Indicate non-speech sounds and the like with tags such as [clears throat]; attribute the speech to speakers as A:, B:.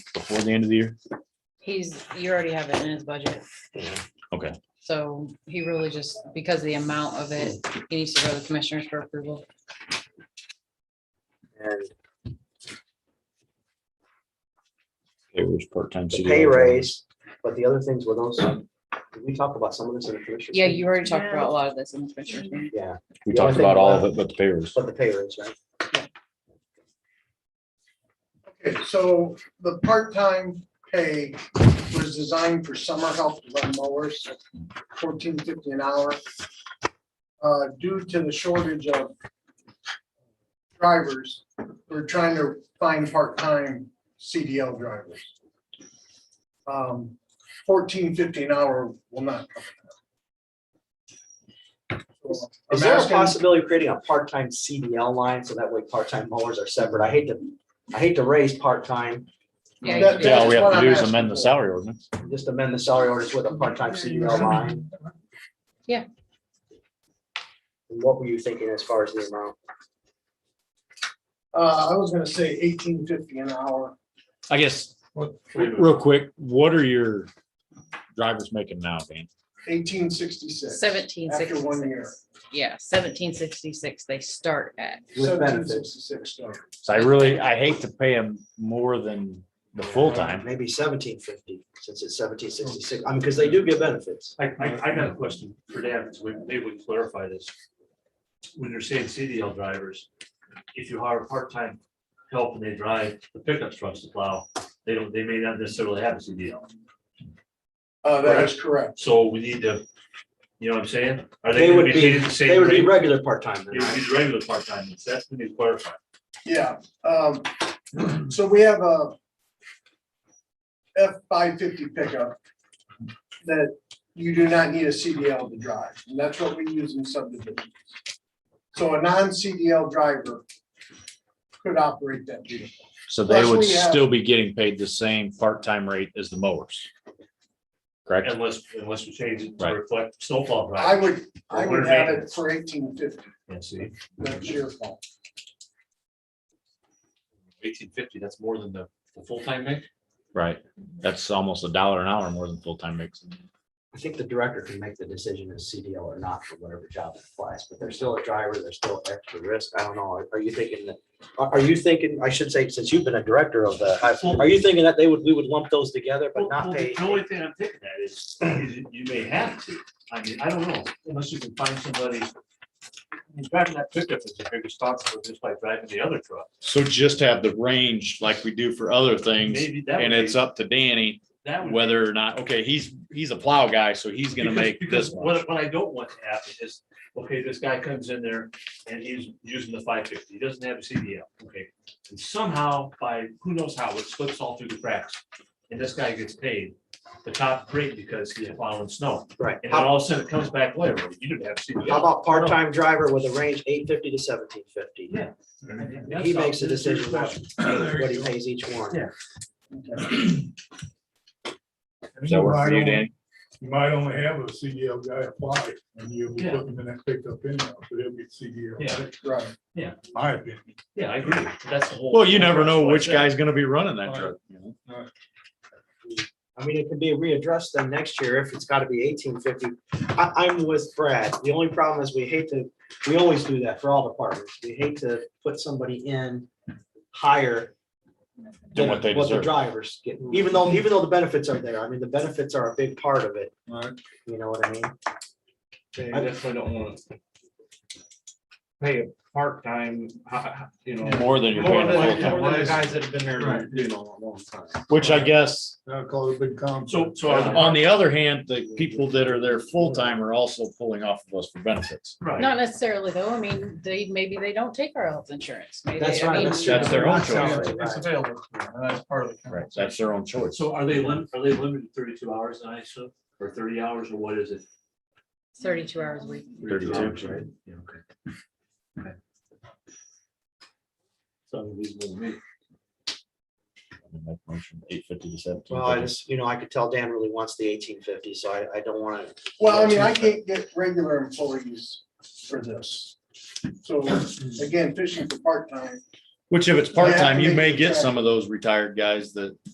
A: before the end of the year?
B: He's, you already have it in his budget.
A: Okay.
B: So he really just, because of the amount of it, he needs to go to the commissioners for approval.
C: And
A: It was part-time. E
C: the
A: CDL
C: pay
A: drivers.
C: raise, but the other things were those, did we talk about some of this in the commission?
B: Yeah, you already talked about a lot of this in the commissioners. meeting.
C: Yeah,
A: We
C: The only
A: talked
C: thing
A: about all of
C: left-
A: it, but the pay raise.
C: but the pay raise, right?
D: Okay, so the part-time pay was designed for summer help to run mowers, fourteen fifty an hour. Uh, due to the shortage of drivers, we're trying to find part-time CDL drivers. Um, fourteen fifty an hour will not. cover that. So I'm
C: Is there a
D: asking-
C: possibility of creating a part-time CDL line so that way part-time mowers are separate? I hate to, I hate to raise part-time,
B: Yeah,
D: That-
B: you
A: Yeah, all
B: did.
A: we
D: That's
A: have
D: what
A: to
D: I'm
A: do is
D: asking
A: amend the
D: for.
A: salary ordinance.
C: just amend the salary orders with a part-time CDL line.
B: Yeah.
C: And What were you thinking as far as the amount?
D: Uh, I was gonna say eighteen fifty an hour.
A: I guess, real quick, what are your drivers making now, Dan?
D: Eighteen sixty-six.
B: Seventeen
D: After one year.
B: sixty-six. Yeah, seventeen sixty-six, they start at.
C: With benefits.
D: 1766, no.
A: So I really, I hate to pay them more than the full-time.
C: Uh, Maybe seventeen fifty, since it's seventeen sixty-six, I mean, because they do get benefits.
E: I, I, I got a question for Dan, so we- maybe we can clarify this. When you're saying CDL drivers, if you hire part-time help and they drive the pickup trucks to plow, they don't, they may not necessarily have a CDL.
D: Uh, that is correct.
E: So we need to, you know what I'm saying? Are
C: They
E: gonna
C: would be,
E: treated the same
C: they would be
E: rate?
C: regular part-time.
E: They would be regular part-time, that's what we need to clarify.
D: Yeah, um, [clears throat] so we have a F five fifty pickup that you do not need a CDL to drive, and that's what we use in subdivisions. So a non-CDL driver could operate that vehicle.
A: So they would
D: Plus we have-
A: still be getting paid the same part-time rate as the mowers. Correct?
E: Unless, unless we change it
A: Right.
E: to reflect snowfall
D: I
E: drivers.
D: would, I would
E: Or
D: have it
E: maintenance.
D: for eighteen fifty,
E: Yeah, see,
D: that's your fault.
E: eighteen fifty, that's more than the, the full-time rate?
A: Right. That's almost a dollar an hour more than full-time makes.
C: I think the director can make the decision as CDL or not for whatever job it applies, but they're still a driver, they're still extra risk. I don't know. Are- Are you thinking that? Are, are you thinking, I should say, since you've been a director of the, high- are you thinking that they would, we would lump those together but
E: Well,
C: not
E: well,
C: pay?
E: The only thing I'm thinking at is, is you- you may have to, I mean, I don't know, unless you can find somebody. I mean, Driving that pickup is a big responsibility just by driving the other truck.
A: So just have the range like we do for other things
E: Maybe that
A: and
E: would
A: it's
E: be-
A: up to Danny
E: that would-
A: whether or not, okay, he's, he's a plow guy, so he's gonna
E: because-
A: make
E: because
A: this
E: What,
A: much.
E: what I don't want to happen is, okay, this guy comes in there and he's using the five fifty, he doesn't have a CDL, okay. And somehow by, who knows how, it slips all through the cracks and this guy gets paid the top rate because he's plowing snow.
C: Right.
E: And then
C: How
E: all of a sudden it comes back later, you didn't have CDL.
C: how about part-time driver with a range eight fifty to seventeen fifty?
E: Yeah.
C: He makes the decision about what he pays each one.
E: Yeah.
A: Does that work for you, Danny?
F: You might only have a CDL guy apply, and you'll be
E: Yeah.
F: looking in that pickup anyhow, so he'll be CDL.
E: Yeah,
D: Right.
F: My opinion.
E: yeah, I agree. That's the whole.
A: Well, you never know which guy's gonna be running that truck. you know?
C: I mean, it can be readdressed then next year if it's gotta be eighteen fifty. I, I'm with Brad. The only problem is we hate to, we always do that for all departments. We hate to put somebody in higher
A: Than what they
C: the
A: deserve.
C: drivers get, even though, even though the benefits are there. I mean, the benefits are a big part of it.
F: Right.
C: You know what I mean?
G: Yeah, you definitely don't wanna pay a part-time, ho-
E: uh,
G: ho- you know.
A: More than you're paying
G: More
A: a
G: than-
A: full-time,
G: more than the guys that have been there, you know, a long time.
A: which I guess,
F: That'll cause a big conflict.
E: So, so.
F: uh,
E: are the-
A: on the other hand, the people that are there full-time are also pulling off of us for benefits.
E: Right,
B: Not necessarily though. I mean, they, maybe they don't take our health insurance. Maybe they-
C: That's
B: I
C: right.
B: mean,
C: true.
A: That's their own
C: Not salary, right.
D: available, and that's part of the.
A: Right, that's their own choice.
E: so are they lim, are they limited to thirty-two hours, I assume, or thirty hours, or what is it?
B: Thirty-two hours a week.
A: 32.
E: hours, Right, yeah, okay. Okay. Sounds reasonable to me.
A: Eight fifty to seventeen.
C: Well, I just, you know, I could tell Dan really wants the eighteen fifty, so I, I don't wanna.
D: Well, I mean, I can't get regular employees for this. So again, fishing for part-time,
A: Which if it's
D: They have
A: part-time,
D: to
A: you
D: make
A: may
D: the
A: get
D: track.
A: some of those retired guys that